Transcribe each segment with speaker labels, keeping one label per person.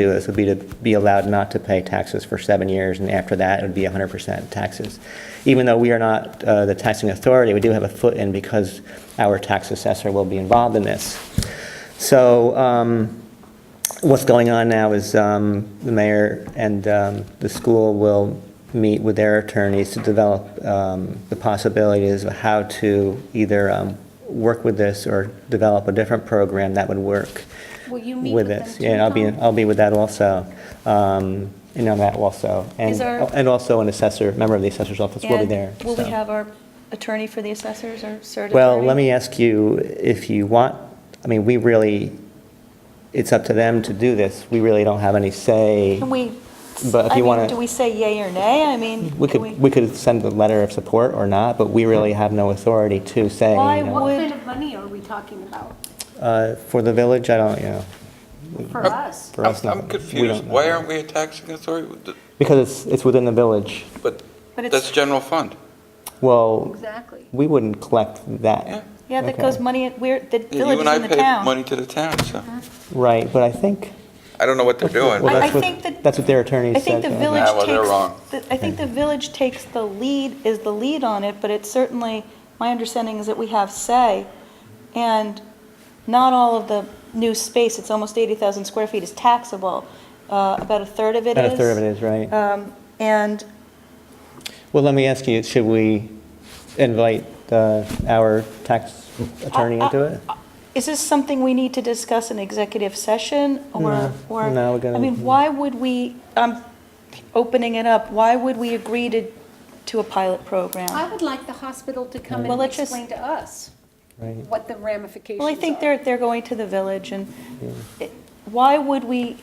Speaker 1: do this would be to be allowed not to pay taxes for seven years, and after that, it would be 100% taxes. Even though we are not uh, the taxing authority, we do have a foot in because our tax assessor will be involved in this. So um, what's going on now is um, the mayor and um, the school will meet with their attorneys to develop um, the possibilities of how to either um, work with this or develop a different program that would work
Speaker 2: Will you meet
Speaker 1: with
Speaker 2: with them
Speaker 1: this.
Speaker 2: too,
Speaker 1: Yeah, I'll be,
Speaker 2: Tom?
Speaker 1: I'll be with that also, um, and on that also. And-
Speaker 2: Is there-
Speaker 1: And also an assessor, member of the assessor's office will be
Speaker 2: And
Speaker 1: there.
Speaker 2: Will we
Speaker 1: so.
Speaker 2: have our attorney for the assessors or cert attorney?
Speaker 1: Well, let me ask you, if you want, I mean, we really, it's up to them to do this. We really don't have any say.
Speaker 2: Can we,
Speaker 1: But if
Speaker 2: I
Speaker 1: you wanna-
Speaker 2: mean, do we say yay or nay? I mean,
Speaker 1: We
Speaker 2: can
Speaker 1: could, we could send a letter of support or not, but we really have no authority to say.
Speaker 2: Why
Speaker 1: you know.
Speaker 2: would-
Speaker 3: What kind of money are we talking about
Speaker 1: Uh, For the village, I don't, you know,
Speaker 3: for us?
Speaker 1: for
Speaker 4: I'm
Speaker 1: us,
Speaker 4: I'm
Speaker 1: nothing. We
Speaker 4: confused.
Speaker 1: don't know.
Speaker 4: Why aren't we a taxing authority?
Speaker 1: Because it's, it's within the village.
Speaker 4: But
Speaker 2: But it's-
Speaker 4: that's general fund.
Speaker 1: Well,
Speaker 3: Exactly.
Speaker 1: we wouldn't collect
Speaker 4: Yeah.
Speaker 1: that.
Speaker 2: Yeah, that
Speaker 1: Okay.
Speaker 2: goes money, where, the village
Speaker 4: You
Speaker 2: is
Speaker 4: and I
Speaker 2: in the
Speaker 4: pay
Speaker 2: town.
Speaker 4: money to the town, so
Speaker 1: Right, but I think.
Speaker 4: I don't know what they're doing.
Speaker 1: Well,
Speaker 2: I-
Speaker 4: but-
Speaker 1: that's
Speaker 2: I
Speaker 1: what-
Speaker 2: think that-
Speaker 1: That's what their attorney
Speaker 2: I
Speaker 1: said.
Speaker 2: think the
Speaker 1: so-
Speaker 2: village
Speaker 4: Nah, well, they're wrong.
Speaker 2: takes, the- I think the village takes the lead, is the lead on it, but it's certainly, my understanding is that we have say, and not all of the new space, it's almost 80,000 square feet, is taxable. Uh, About a third of it is.
Speaker 1: About a third of it is, right.
Speaker 2: Um, And
Speaker 1: Well, let me ask you, should we invite uh, our tax attorney into it?
Speaker 2: Uh, Is this something we need to discuss in executive session or?
Speaker 1: No,
Speaker 2: or-
Speaker 1: no, we're gonna-
Speaker 2: I mean, why would we, I'm opening it up, why would we agree to, to a pilot
Speaker 3: I
Speaker 2: program?
Speaker 3: would like the hospital to come
Speaker 2: Well,
Speaker 3: and
Speaker 2: let's just-
Speaker 3: explain to us
Speaker 1: Right.
Speaker 3: what the ramifications
Speaker 2: Well,
Speaker 3: are.
Speaker 2: I think they're, they're going to the village and it- why would we,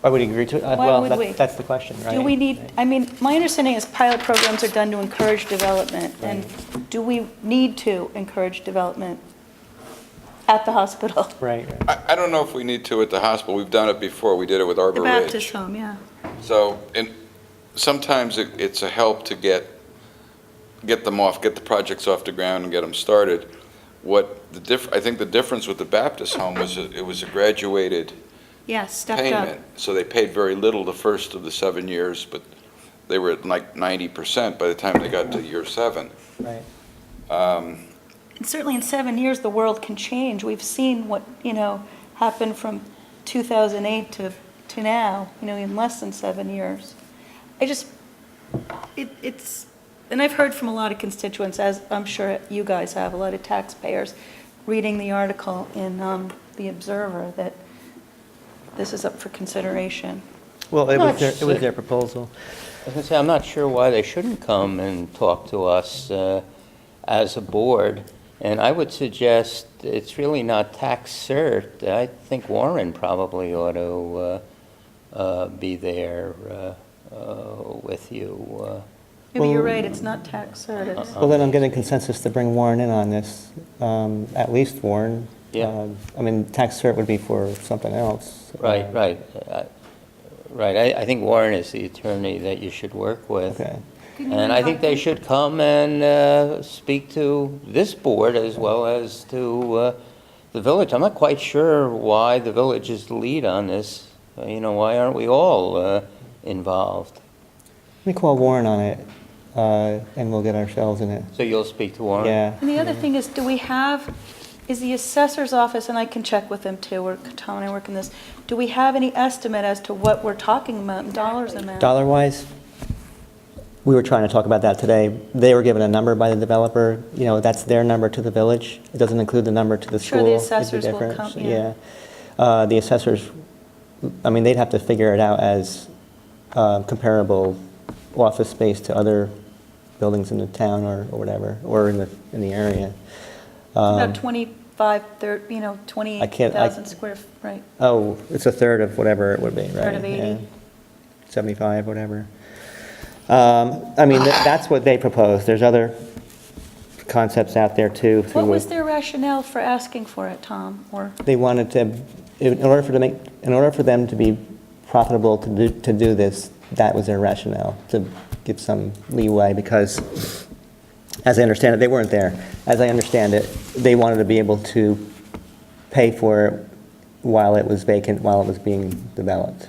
Speaker 1: Why would you agree to it? Uh,
Speaker 2: Why
Speaker 1: Well,
Speaker 2: would
Speaker 1: that-
Speaker 2: we?
Speaker 1: that's the question, right?
Speaker 2: do we need, I mean, my understanding is pilot programs are done to encourage development. And do we need to encourage development at the hospital?
Speaker 1: Right, right.
Speaker 4: I I don't know if we need to at the hospital. We've done it before. We did it with
Speaker 2: The
Speaker 4: Arbor Ridge.
Speaker 2: Baptist home, yeah.
Speaker 4: So, and sometimes it- it's a help to get, get them off, get the projects off the ground and get them started. What the diff, I think the difference with the Baptist home was it it was a graduated
Speaker 2: Yes, stepped up.
Speaker 4: payment. So they paid very little the first of the seven years, but they were at like 90% by the time they got to year seven.
Speaker 1: Right.
Speaker 4: Um,
Speaker 2: And certainly in seven years, the world can change. We've seen what, you know, happened from 2008 to, to now, you know, in less than seven years. I just, it, it's, and I've heard from a lot of constituents, as I'm sure you guys have, a lot of taxpayers, reading the article in um, The Observer that this is up for consideration.
Speaker 1: Well, it
Speaker 5: No,
Speaker 1: was their,
Speaker 5: it's-
Speaker 1: it was their proposal.
Speaker 5: I was gonna say, I'm not sure why they shouldn't come and talk to us uh, as a board. And I would suggest it's really not tax cert. I think Warren probably ought to uh, uh, be there uh, uh, with you.
Speaker 2: Maybe you're right, it's not tax cert, it's-
Speaker 1: Well, then I'm getting consensus to bring Warren in on this, um, at least Warren.
Speaker 5: Yeah.
Speaker 1: Uh, I mean, tax cert would be for something else.
Speaker 5: uh, Right,
Speaker 1: Um,
Speaker 5: right. uh, Right, I I think Warren is the attorney that you should work with.
Speaker 1: Okay.
Speaker 3: Can you
Speaker 5: And I think
Speaker 3: invite
Speaker 5: they
Speaker 3: them?
Speaker 5: should come and uh, speak to this board as well as to uh, the village. I'm not quite sure why the village is the lead on this. Uh, You know, why aren't we all uh, involved?
Speaker 1: Let me call Warren on it, uh, and we'll get ourselves in it.
Speaker 5: So you'll speak to Warren?
Speaker 1: Yeah.
Speaker 2: And the other thing is, do we have, is the assessor's office, and I can check with them too, we're, Tom and I work on this, do we have any estimate as to what we're talking about in dollars
Speaker 3: Exactly.
Speaker 2: amount?
Speaker 1: Dollar-wise, we were trying to talk about that today. They were given a number by the developer, you know, that's their number to the village. It doesn't include the number to the
Speaker 2: Sure,
Speaker 1: school.
Speaker 2: the
Speaker 1: is
Speaker 2: assessors will
Speaker 1: difference.
Speaker 2: come, yeah.
Speaker 1: Yeah. Uh, The assessors, I mean, they'd have to figure it out as uh, comparable office space to other buildings in the town or or whatever, or in the, in the area. Um,
Speaker 2: About 25, thir- you know,
Speaker 1: I can't- I-
Speaker 2: 28,000 square, f- right.
Speaker 1: Oh, it's a third of whatever it would be, right?
Speaker 2: Third of 80.
Speaker 1: Yeah. 75, whatever. Um, I mean, tha- that's what they proposed. There's other concepts out there too. through
Speaker 2: What was their rationale for asking for it, Tom, or?
Speaker 1: They wanted to, in order for to make, in order for them to be profitable to do, to do this, that was their rationale, to give some leeway because, as I understand it, they weren't there. As I understand it, they wanted to be able to pay for it while it was vacant, while it was being developed.